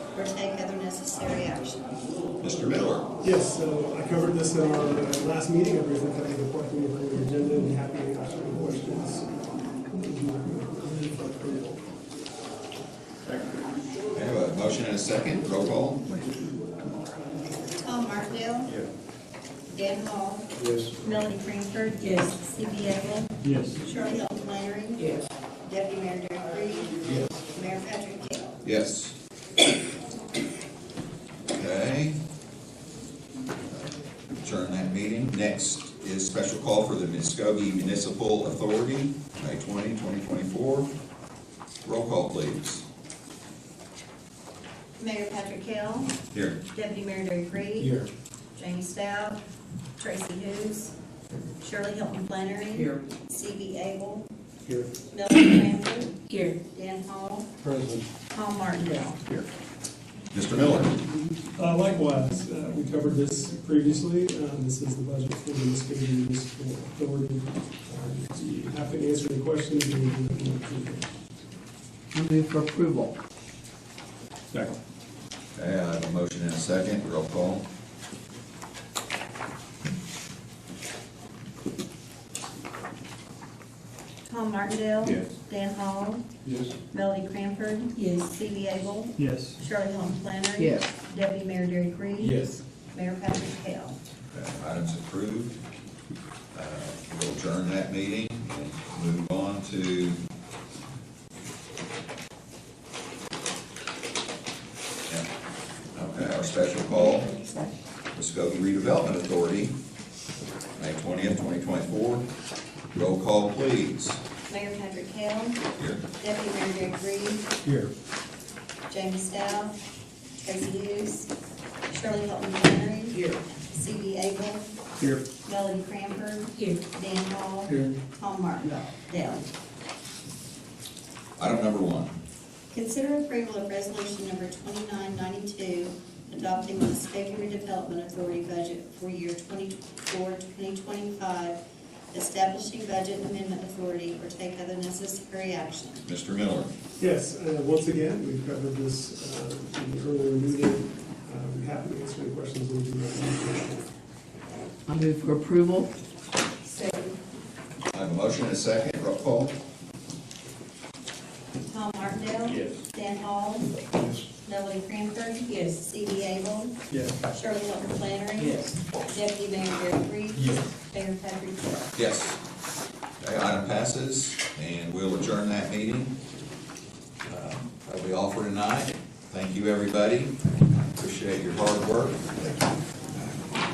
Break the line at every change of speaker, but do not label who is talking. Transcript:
or take other necessary action.
Mr. Miller?
Yes, so I covered this in our uh, last meeting, I briefly covered the point of the agenda, and happy to answer any questions. Move for approval.
I have a motion and a second, roll call.
Tom Martindale?
Yes.
Dan Hall?
Yes.
Melanie Cranford? Yes. C.B. Abel?
Yes.
Shirley Hilton Lannery?
Yes.
Deputy Mayor Derek Reed? Yes. Mayor Patrick Kell?
Yes. Okay. Adjourn that meeting. Next is special call for the Muskogee Municipal Authority, May 20, 2024. Roll call, please.
Mayor Patrick Kell?
Here.
Deputy Mayor Derek Reed?
Here.
Jamie Stout? Tracy Hughes? Shirley Hilton Lannery?
Here.
C.B. Abel?
Here.
Melanie Cranford?
Here.
Dan Hall?
President.
Tom Martindale?
Mr. Miller?
Uh, Likewise, uh, we covered this previously. Um, This is the budget for the Muskogee Municipal Authority. Uh, do you Happy to answer any questions. and we can approve it.
I move for approval.
Second. Okay, I have a motion and a second, roll call.
Tom Martindale?
Yes.
Dan Hall?
Yes.
Melody Cranford? Yes. C.B. Abel?
Yes.
Shirley Holmes Planner?
Yes.
Deputy Mayor Derek Reed? Mayor Patrick Kell?
Item's approved. Uh, We'll adjourn that meeting and move on to Yeah. Okay, our special call, Muskogee Redevelopment Authority, May twentieth, twenty twenty-four. Roll call, please.
Mayor Patrick Kell?
Here.
Deputy Mayor Derek Reed?
Here.
Jamie Stout? Tracy Hughes? Shirley Holmes Planner?
Here.
C.B. Abel?
Here.
Melody Cranford?
Here.
Dan Hall?
Here.
Tom Martindale? Dale.
Item number one.
Consider approval of resolution number twenty-nine ninety-two, adopting the Muskogee redevelopment authority budget for year 24 2025, establishing budget amendment authority or take other necessary action.
Mr. Miller?
Yes, uh, once again, we've covered this uh, in the earlier meeting. Uh, We're happy to answer any questions. and we can approve it.
I move for approval.
I have a motion and a second, roll call.
Tom Martindale?
Yes.
Dan Hall? Melody Cranford? Yes. C.D. Abel? Yes. Shirley Hunter Flannery? Deputy Mayor Derek Reed? Yes. Mayor Patrick Kell?
Yes. Okay, item passes, and we'll adjourn that meeting. Uh, That'll be all for tonight. Thank you, everybody. Appreciate your hard work. Thank you.